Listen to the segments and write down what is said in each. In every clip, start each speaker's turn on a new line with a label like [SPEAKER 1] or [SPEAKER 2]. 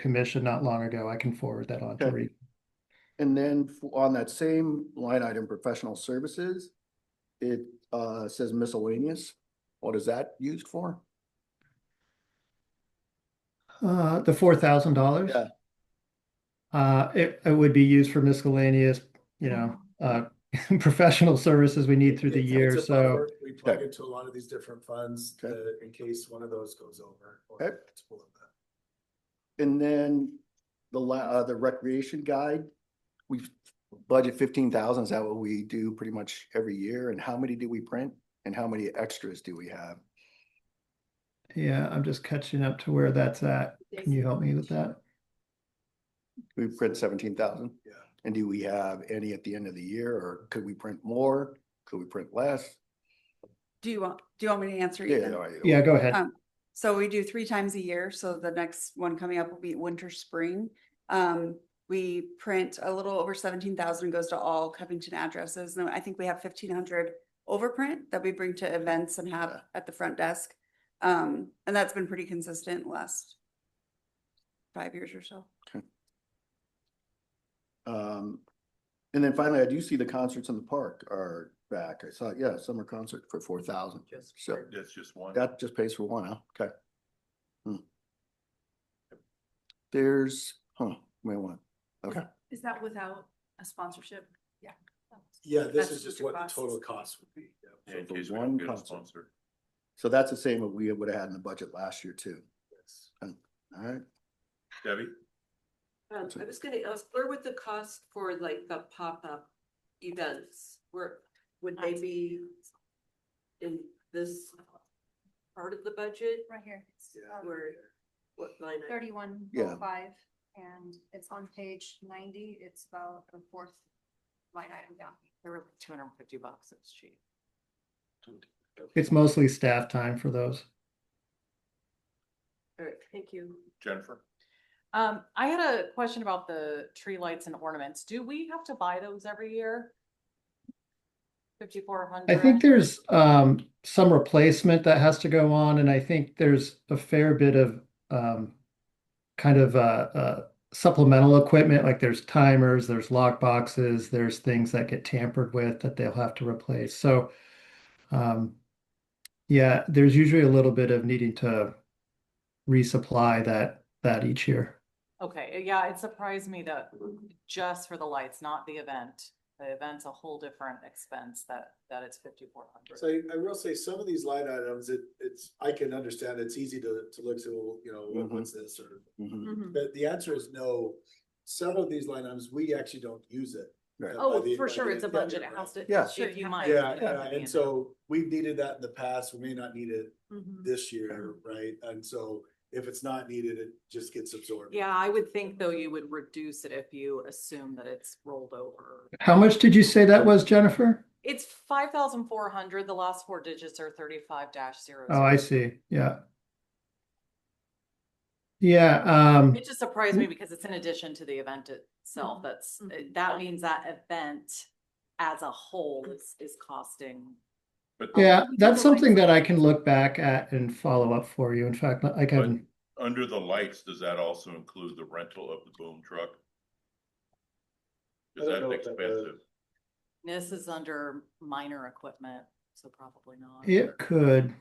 [SPEAKER 1] commission not long ago. I can forward that on to
[SPEAKER 2] Okay.
[SPEAKER 1] Reed.
[SPEAKER 2] And then f- on that same line item, professional services, it uh says miscellaneous. What is that used for?
[SPEAKER 1] Uh, the four thousand dollars.
[SPEAKER 2] Yeah.
[SPEAKER 1] Uh, it, it would be used for miscellaneous, you know, uh, professional services we need through the
[SPEAKER 3] It's-
[SPEAKER 1] year,
[SPEAKER 3] it's a buffer.
[SPEAKER 1] so.
[SPEAKER 3] We plug
[SPEAKER 2] Okay.
[SPEAKER 3] into a lot of these different funds
[SPEAKER 2] Okay.
[SPEAKER 3] uh, in case one of those goes over. or
[SPEAKER 2] Okay.
[SPEAKER 3] multiple of them.
[SPEAKER 2] And then the la- uh, the recreation guide, we budget fifteen thousand, is that what we do pretty much every year? And how many do we print? And how many extras do we have?
[SPEAKER 1] Yeah, I'm just catching up to where that's at. Can you help me with that?
[SPEAKER 2] We print seventeen thousand?
[SPEAKER 3] Yeah.
[SPEAKER 2] And do we have any at the end of the year, or could we print more? Could we print less?
[SPEAKER 4] Do you want, do you want me to answer?
[SPEAKER 2] Yeah,
[SPEAKER 4] either?
[SPEAKER 2] yeah, yeah.
[SPEAKER 1] Yeah, go ahead.
[SPEAKER 4] Um, So we do three times a year, so the next one coming up will be winter, spring. Um, we print a little over seventeen thousand goes to all Covington addresses, and I think we have fifteen hundred overprint that we bring to events and have at the front desk. Um, and that's been pretty consistent last five years or so.
[SPEAKER 2] Um, and then finally, I do see the concerts in the park are back. I saw, yeah, summer concert for four thousand. So
[SPEAKER 5] That's just one.
[SPEAKER 2] that just pays for one, huh? Okay. Hmm. There's, huh, wait one. Okay,
[SPEAKER 6] Is that without a sponsorship? Yeah.
[SPEAKER 3] Yeah, this
[SPEAKER 6] That's
[SPEAKER 3] is just
[SPEAKER 6] your
[SPEAKER 3] what the
[SPEAKER 6] costs.
[SPEAKER 3] total cost would be. yeah.
[SPEAKER 5] Yeah, In
[SPEAKER 2] So the
[SPEAKER 5] case we don't
[SPEAKER 2] one
[SPEAKER 5] get a
[SPEAKER 2] concert.
[SPEAKER 5] sponsor.
[SPEAKER 2] so that's the same that we would have had in the budget last year too.
[SPEAKER 3] Yes.
[SPEAKER 2] All right,
[SPEAKER 5] Debbie?
[SPEAKER 7] Um, I was gonna ask, where would the cost for like the Uh, pop-up events, where, would they be in this part of the budget?
[SPEAKER 6] Right here. It's,
[SPEAKER 3] Yeah.
[SPEAKER 6] um,
[SPEAKER 7] Where, what line? item?
[SPEAKER 6] Thirty-one
[SPEAKER 2] Yeah.
[SPEAKER 6] oh five, and it's on page ninety, it's about the fourth line item down.
[SPEAKER 8] They were like two hundred and fifty bucks, it's cheap.
[SPEAKER 1] It's mostly staff time for those.
[SPEAKER 7] All right, thank you.
[SPEAKER 5] Jennifer?
[SPEAKER 8] Um, I had a question about the tree lights and ornaments. Do we have to buy those every year? Fifty-four
[SPEAKER 1] I
[SPEAKER 8] hundred?
[SPEAKER 1] think there's um some replacement that has to go on, and I think there's a fair bit of um kind of uh, uh supplemental equipment, like there's timers, there's lock boxes, there's things that get tampered with that they'll have to replace. So um yeah, there's usually a little bit of needing to resupply that that each year.
[SPEAKER 8] Okay, yeah, it surprised me that just for the lights, not the event. The event's a whole different expense that, that it's fifty-four
[SPEAKER 3] So
[SPEAKER 8] hundred.
[SPEAKER 3] I, I will say some of these line items, it, it's, I can understand, it's easy to, to look to, well, you know, what-
[SPEAKER 2] Mhm.
[SPEAKER 3] what's this or,
[SPEAKER 2] Mhm.
[SPEAKER 7] Mm-hmm,
[SPEAKER 3] but the answer is no. Some of these line items, we actually don't use it.
[SPEAKER 2] Right.
[SPEAKER 3] uh, by
[SPEAKER 7] Oh,
[SPEAKER 3] the-
[SPEAKER 7] for
[SPEAKER 3] by
[SPEAKER 7] sure,
[SPEAKER 3] the
[SPEAKER 7] it's a
[SPEAKER 3] end of the
[SPEAKER 7] budget,
[SPEAKER 3] year,
[SPEAKER 7] it
[SPEAKER 3] right?
[SPEAKER 7] has to.
[SPEAKER 2] Yeah.
[SPEAKER 7] sure,
[SPEAKER 8] If
[SPEAKER 7] you
[SPEAKER 8] you
[SPEAKER 7] have
[SPEAKER 8] might.
[SPEAKER 7] to-
[SPEAKER 3] Yeah,
[SPEAKER 8] Yeah,
[SPEAKER 3] yeah, and
[SPEAKER 8] yeah.
[SPEAKER 3] so we've needed that in the past, we may not need it
[SPEAKER 7] Mhm.
[SPEAKER 3] this year, right? And so if it's not needed, it just gets absorbed.
[SPEAKER 8] Yeah, I would think though you would reduce it if you assume that it's rolled over.
[SPEAKER 1] How much did you say that was, Jennifer?
[SPEAKER 8] It's five thousand four hundred, the last four digits are thirty-five dash zero.
[SPEAKER 1] Oh, I see. Yeah. Yeah, um
[SPEAKER 8] It just surprised me because it's in addition to the event
[SPEAKER 6] Mhm,
[SPEAKER 8] itself,
[SPEAKER 1] Mm-hmm.
[SPEAKER 8] that's,
[SPEAKER 6] mhm.
[SPEAKER 8] that means that event as a whole is, is costing.
[SPEAKER 5] But
[SPEAKER 1] Yeah,
[SPEAKER 8] we
[SPEAKER 1] that's
[SPEAKER 8] can, like-
[SPEAKER 1] something that I can look back at and follow up for you. In fact, I can,
[SPEAKER 5] under the lights, does that also include the rental of the boom truck?
[SPEAKER 3] I
[SPEAKER 5] Is
[SPEAKER 3] don't
[SPEAKER 5] that
[SPEAKER 3] know if that
[SPEAKER 5] expensive?
[SPEAKER 8] This is under minor equipment, so probably not.
[SPEAKER 1] it could,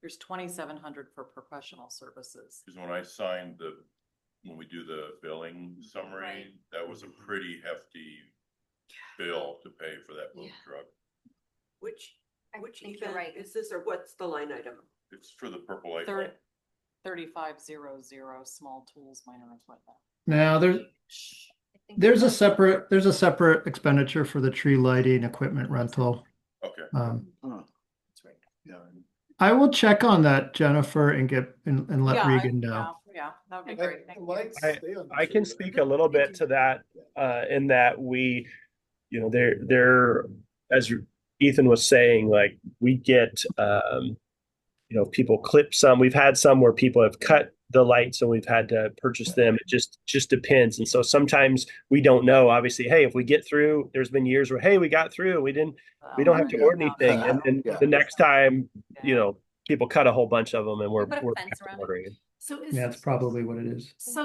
[SPEAKER 8] There's twenty-seven hundred for professional services.
[SPEAKER 5] Because when I signed the, when we do the billing summary, that was a pretty hefty bill to pay for that boom
[SPEAKER 6] Yeah.
[SPEAKER 5] truck.
[SPEAKER 7] Which,
[SPEAKER 6] I
[SPEAKER 7] which
[SPEAKER 6] think you're
[SPEAKER 7] event
[SPEAKER 6] right.
[SPEAKER 7] is this, or what's the line item?
[SPEAKER 5] It's for the purple light.
[SPEAKER 8] Thir-
[SPEAKER 5] bulb.
[SPEAKER 8] Thirty-five zero zero, small tools, minor equipment.
[SPEAKER 1] now there's,
[SPEAKER 8] Shh.
[SPEAKER 6] I think
[SPEAKER 1] there's a
[SPEAKER 6] that's-
[SPEAKER 1] separate, there's a separate expenditure for the tree lighting equipment rental.
[SPEAKER 5] Okay,
[SPEAKER 1] Um,
[SPEAKER 2] Huh.
[SPEAKER 8] That's right.
[SPEAKER 2] Yeah, and
[SPEAKER 1] I will check on that, Jennifer, and get, and, and let
[SPEAKER 8] Yeah, I-
[SPEAKER 1] Regan know.
[SPEAKER 8] yeah, Yeah, that would be
[SPEAKER 3] Like,
[SPEAKER 8] great,
[SPEAKER 3] the
[SPEAKER 8] thank you.
[SPEAKER 3] lights
[SPEAKER 9] I-
[SPEAKER 3] stay on the
[SPEAKER 9] I can
[SPEAKER 3] tree, right?
[SPEAKER 9] speak a little bit to that, uh, in that we, you know, there, there, as Ethan was saying, like, we get, um, you know, people clip some, we've had some where people have cut the lights and we've had to purchase them. It just, just depends. And so sometimes we don't know, obviously, hey, if we get through, there's been years where, hey, we got through, we didn't, we don't have to
[SPEAKER 2] Yeah.
[SPEAKER 9] order anything.
[SPEAKER 2] Uh,
[SPEAKER 9] And then the next time,
[SPEAKER 8] Yeah.
[SPEAKER 9] you know, people cut a whhole bunch of them and we're,
[SPEAKER 6] Put a
[SPEAKER 9] we're
[SPEAKER 6] fence
[SPEAKER 9] back to
[SPEAKER 6] around it.
[SPEAKER 9] ordering.
[SPEAKER 10] So is.
[SPEAKER 1] Yeah, that's probably what it is.
[SPEAKER 10] So